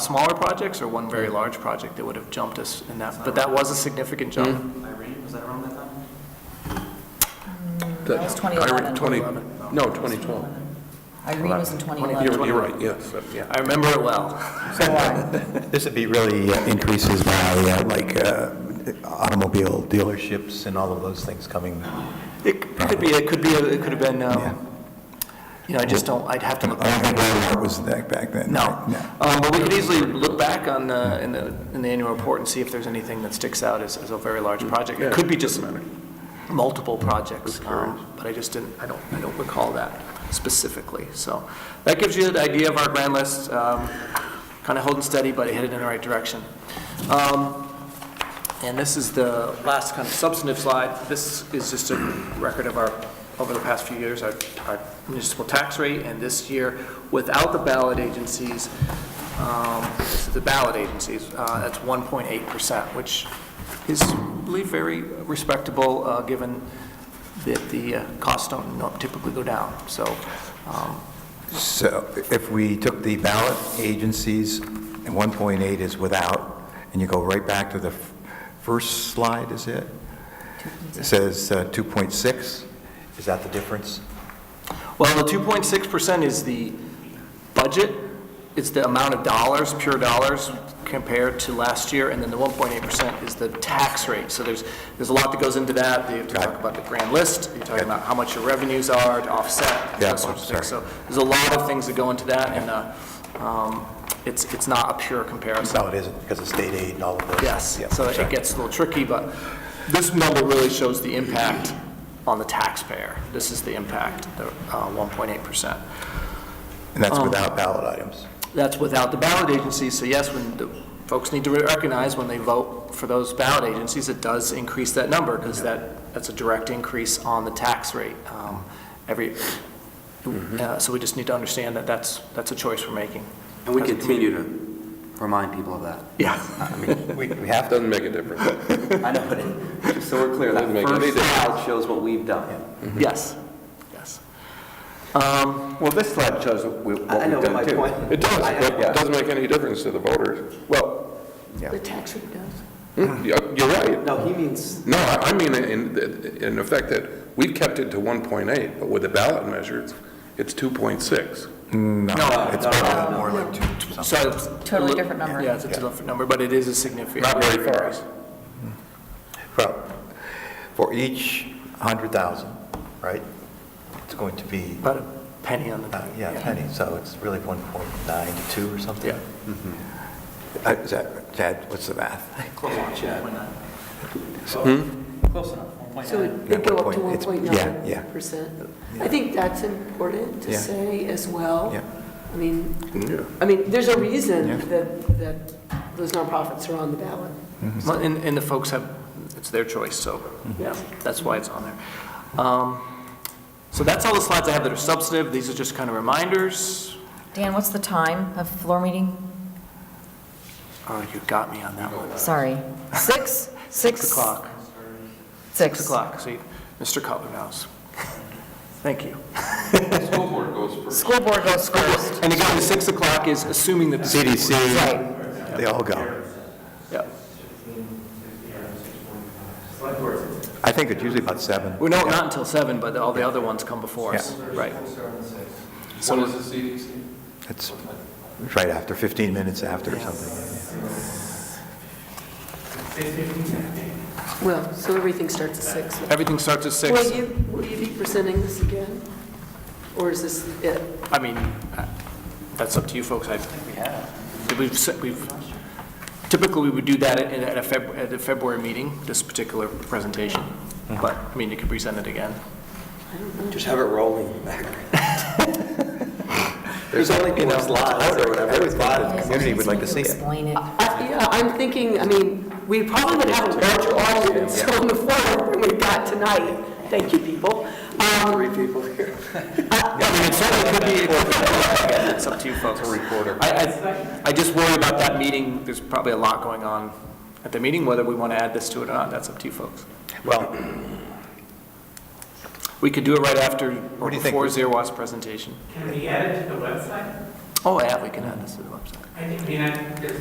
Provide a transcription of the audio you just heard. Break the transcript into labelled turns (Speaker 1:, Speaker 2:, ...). Speaker 1: smaller projects or one very large project that would have jumped us in that, Mm-hmm. but that was a significant jump.
Speaker 2: Irene, was that around that time?
Speaker 3: That
Speaker 4: was 2011.
Speaker 3: No, 2012.
Speaker 4: Irene was in 2011.
Speaker 3: You're you're right, yes, yeah.
Speaker 1: I remember it well.
Speaker 4: So I-
Speaker 5: This would be really uh, increases by uh, like uh, automobile dealerships and all of those things coming.
Speaker 1: It could be, it could be, it could have been, um, you know, I just don't, I'd have to look
Speaker 5: I don't
Speaker 1: back.
Speaker 5: think Walmart was that back then.
Speaker 1: No.
Speaker 5: right?
Speaker 1: Um, But we could easily look back on, uh, in the, in the annual report and see if there's anything that sticks out as, as a very large project. It could be just multiple projects, um, but I just didn't, I don't, I don't recall that specifically. So that gives you an idea of our grand list, kind of holding steady, but headed in the right direction. Um, And this is the last kind of substantive slide. This is just a record of our, over the past few years, our our municipal tax rate, and this year, without the ballot agencies, um, this is the ballot agencies, uh, that's 1.8%, which is really very respectable, uh, given that the uh, costs don't typically go down. So um,
Speaker 5: So if we took the ballot agencies, and 1.8 is without, and you go right back to the f- first slide, is it? It says uh, 2.6, is that the difference?
Speaker 1: Well, the 2.6% is the budget, it's the amount of dollars, pure dollars, compared to last year, and then the 1.8% is the tax rate. So there's, there's a lot that goes into that. You have to
Speaker 5: Got it.
Speaker 1: talk about the grand list, you're talking about how much your revenues are to offset,
Speaker 5: Yeah,
Speaker 1: those sorts of
Speaker 5: sorry.
Speaker 1: things. So there's a lot of things that go into that, and uh, um, it's, it's not a pure comparison.
Speaker 5: No, it isn't, because of state aid and all of those.
Speaker 1: Yes,
Speaker 5: Yeah,
Speaker 1: so it
Speaker 5: sorry.
Speaker 1: gets a little tricky, but this number really shows the impact on the taxpayer. This is the impact, the uh, 1.8%.
Speaker 5: And that's without ballot items.
Speaker 1: That's without the ballot agencies, so yes, when the folks need to recognize when they vote for those ballot agencies, it does increase that number, because that, that's a direct increase on the tax rate. um, Every, uh, so we just need to understand that that's, that's a choice we're making.
Speaker 2: And we continue to remind people of that.
Speaker 1: Yeah.
Speaker 2: I mean,
Speaker 5: We we have to,
Speaker 3: Doesn't make a difference.
Speaker 2: I know, but it- just so we're clear, that
Speaker 3: Doesn't make any
Speaker 2: first slide shows what we've done.
Speaker 1: Yes, yes. Um,
Speaker 6: Well, this slide shows what we- what
Speaker 2: I I know
Speaker 6: we've
Speaker 2: what my
Speaker 6: done, too.
Speaker 2: point.
Speaker 3: It does,
Speaker 2: I- I-
Speaker 3: but
Speaker 2: yeah.
Speaker 3: it doesn't make any difference to the voters.
Speaker 6: Well,
Speaker 4: The tax rate does.
Speaker 3: Hmm, yeah, You're right.
Speaker 2: No, he means,
Speaker 3: No, I I mean, in, in the fact that we've kept it to 1.8, but with the ballot measures, it's 2.6.
Speaker 5: no, it's probably more like 2.
Speaker 1: So. it's a
Speaker 4: Totally
Speaker 1: li-
Speaker 4: different number.
Speaker 1: Yeah, it's a different number, but it is a significant.
Speaker 3: Not very far.
Speaker 5: Well, for each 100,000, right, it's going to be,
Speaker 1: About a penny on the.
Speaker 5: uh, yeah, a penny, so it's really 1.92 or something?
Speaker 1: Yeah.
Speaker 5: Uh, Is that, Chad, what's the math?
Speaker 2: close enough,
Speaker 4: Hmm?
Speaker 7: So it- they go up to
Speaker 5: Yeah, it's-
Speaker 7: 1.9
Speaker 5: yeah, yeah.
Speaker 7: percent. I think that's important to
Speaker 5: Yeah.
Speaker 7: say as well.
Speaker 5: Yeah.
Speaker 7: I mean, I mean, there's a reason that, that those nonprofits are on the ballot.
Speaker 1: Well, And, and the folks have, it's their choice, so, yeah, that's why it's on there. Um, So that's all the slides I have that are substantive, these are just kind of reminders.
Speaker 4: Dan, what's the time of floor meeting?
Speaker 1: Oh, you got me on that one.
Speaker 4: Sorry. Six? Six?
Speaker 1: Six o'clock,
Speaker 4: Six.
Speaker 1: six o'clock, see, Mr. Cutler knows. Thank you.
Speaker 4: School board goes first.
Speaker 1: And again, the six o'clock is assuming that, the
Speaker 4: Right.
Speaker 5: They all go.
Speaker 1: yeah,
Speaker 5: I think it's usually about 7.
Speaker 1: we're not, not until seven, but all the other ones come before us, right? So
Speaker 5: It's right after, 15 minutes after or something.
Speaker 7: Well, so everything starts at six.
Speaker 1: everything starts at six.
Speaker 7: Will you, will you be presenting this again? Or is this it?
Speaker 1: I mean, uh, that's up to you folks. I we have. We've, se- we've, typically, we would do that at at a Feb, at a February meeting, this particular presentation. But, I mean, you could present it again.
Speaker 2: just have it rolling back. There's only four slides or whatever. It's fine.
Speaker 4: The
Speaker 5: community would like to see it.
Speaker 4: Explain it.
Speaker 7: I- Yeah, I'm thinking, I mean, we probably would have a larger audience on the floor than we've got tonight. Thank you, people. Um,
Speaker 2: Three people here.
Speaker 1: I mean, it certainly could be, again, it's up to you folks. I, I, I just worry about that meeting, there's probably a lot going on at the meeting, whether we want to add this to it or not, that's up to you folks.
Speaker 5: Well,
Speaker 1: We could do it right after or
Speaker 5: What do you think?
Speaker 1: before Zerwas presentation.
Speaker 8: Can we add it to the website?
Speaker 1: Oh, yeah, we can add this to the website.
Speaker 8: I think, I mean, I,